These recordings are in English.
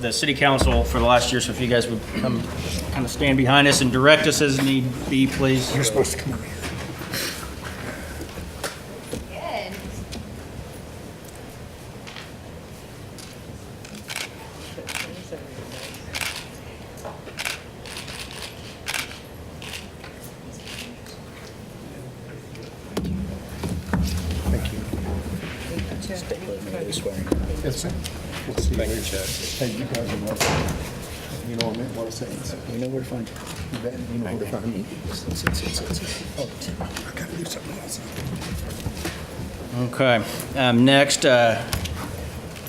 the city council for the last year, so if you guys would come, kind of stand behind us and direct us as need be, please. You're supposed to come over here. Good. Thank you. Yes, sir. We'll see you later. Hey, you guys are welcome. You know what I meant, what I said. You know where to find you. bet You know where to find me. Sit, sit, sit, sit, sit. Oh, I gotta do something else. Okay, um, next, uh,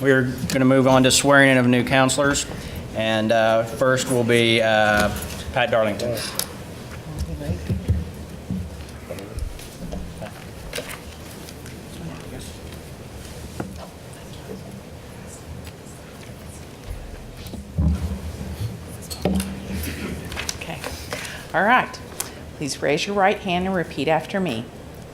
we're going to move on to swearing in of new counselors, and uh, first will be uh, Pat Darlington. Okay. All right. Please raise your right hand and repeat after me.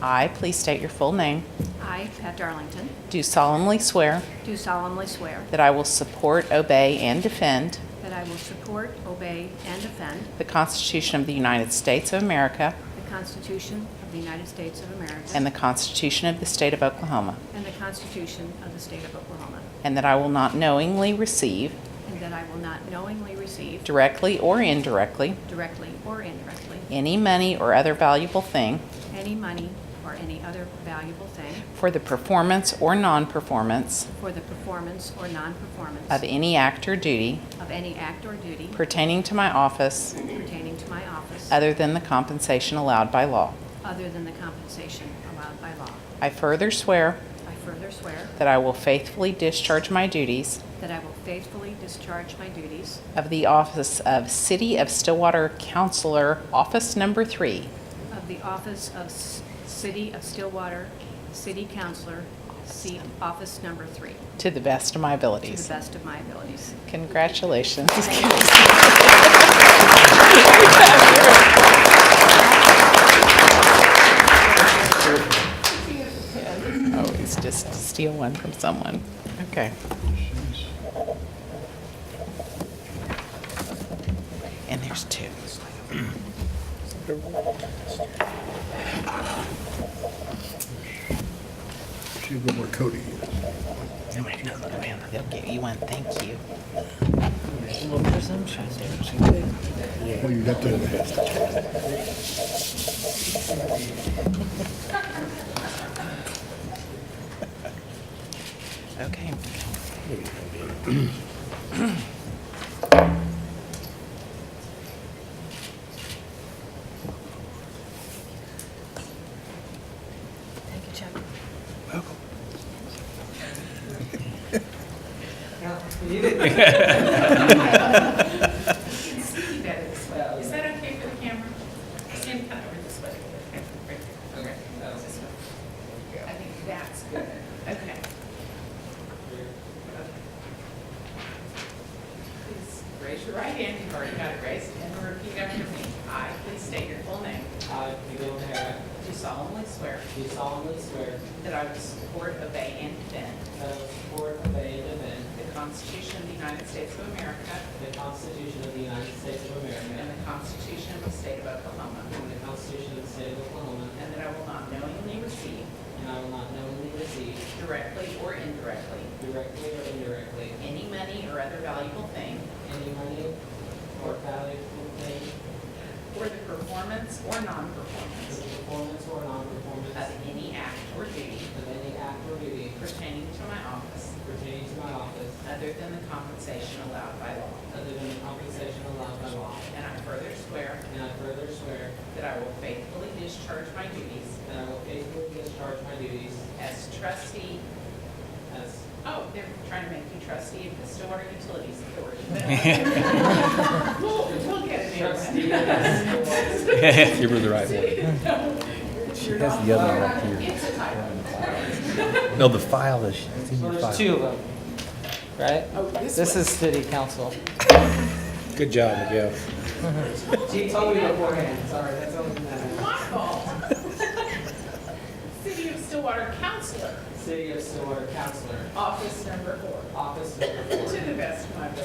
I, please state your full name, I, Pat Darlington, do solemnly swear do solemnly swear that I will support, obey, and defend that I will support, obey, and defend the Constitution of the United States of America the Constitution of the United States of America and the Constitution of the State of Oklahoma, and the Constitution of the State of Oklahoma, and that I will not knowingly receive, and that I will not knowingly receive directly or indirectly, directly or indirectly any money or other valuable thing any money or any other valuable thing for the performance or non-performance for the performance or non-performance of any act or duty of any act or duty pertaining to my office pertaining to my office other than the compensation allowed by law. other than the compensation allowed by law. I further swear I further swear that I will faithfully discharge my duties that I will faithfully discharge my duties of the office of City of Stillwater Counselor, Office Number Three, Of the office of S- City of Stillwater, City Councilor, seat office number three, to the best of my to the abilities. best of my abilities. Congratulations. Always Oh, just steal one from someone. Okay. And there's two. Should go where Cody is. Nobody knows who I am. They'll give you one. Thank you. Well, you got that. Okay. Thank you, Chuck. Is that okay for the camera? Stand kind of over this way. Right there. Okay. This way. I think that's good. Okay. Please raise your right hand. You've already got it raised. And repeat after me. I, please state your full name. I, Miguel O'Hara, Do solemnly swear do solemnly swear that I will support, obey, and defend that I will support, obey, and defend the Constitution of the United States of America the Constitution of the United States of and America the Constitution of the State of Oklahoma, and the Constitution of the State of Oklahoma, and that I will not knowingly receive and I will not knowingly receive, directly or indirectly, directly or indirectly, any money or other valuable thing any money or valuable thing for the performance or non-performance for the performance or non-performance of any act or duty of any act or duty pertaining to my office pertaining to my office other than the compensation allowed by law. other than the compensation allowed by law. And I further swear And I further swear that I will faithfully discharge my duties that I will faithfully discharge my duties as trustee, as oh, they're trying to make you trustee of the Stillwater Utilities Authority. We'll, we'll get it there. trustee of the Board Give her the right one. She has the other one here. No, the file is, it's in Well, your there's file. two of them, right? This is city council. Good job, Miguel. She told me beforehand, sorry, that's all that matters. My fault. City of Stillwater Counselor, City of Stillwater Counselor, Office Number Four. Office Number Four. To the best of my ability.